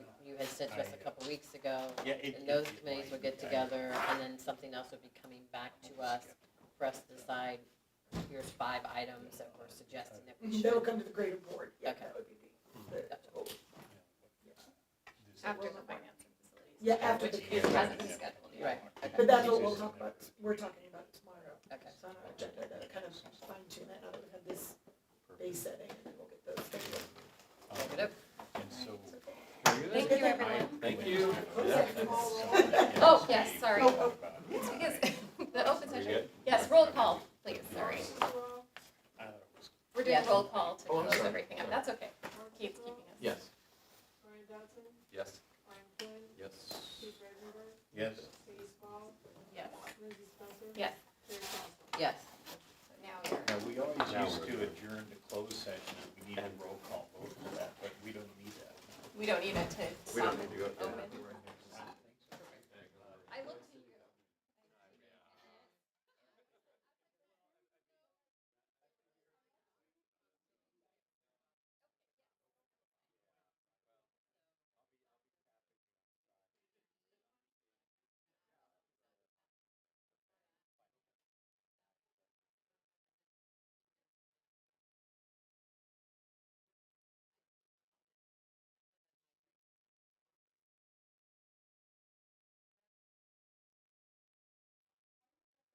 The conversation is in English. said to us a couple weeks ago. Yeah, it- And those it- it committees would get might be. together, and then something else would be coming back to us for us to decide, here's five items that we're suggesting that we That'll should. come to the greater board, yeah, Okay. that would be uh, the, the goal. After the financing facilities. Yeah, after Which the- is- hasn't been scheduled yet. Right, But that's what we'll talk about, we're talking about tomorrow, okay. it's on our agenda, to kind of fine tune that, now that we have this base setting, and then we'll get those. scheduled. Oh, Good. And so. Thank you, everyone. Thank you. Oh, yes, sorry. Oh, It's because the open We session, good? yes, roll call, please, sorry. We're doing Yes. roll call to Oh, I'm close sorry. everything up, that's okay. Keith's keeping us. Yes. Brian Dodson, Yes. Brian Flynn, Yes. Keith Redenberg, Yes. Katie Small, Yes, Lindsey Spencer. Yes. Terry Thompson. Yes, So now we're, Now, we always Now used we're to good. adjourn to closed session, if we need a roll call vote for that, but we don't need that. we don't need it to We don't stop need to go. open.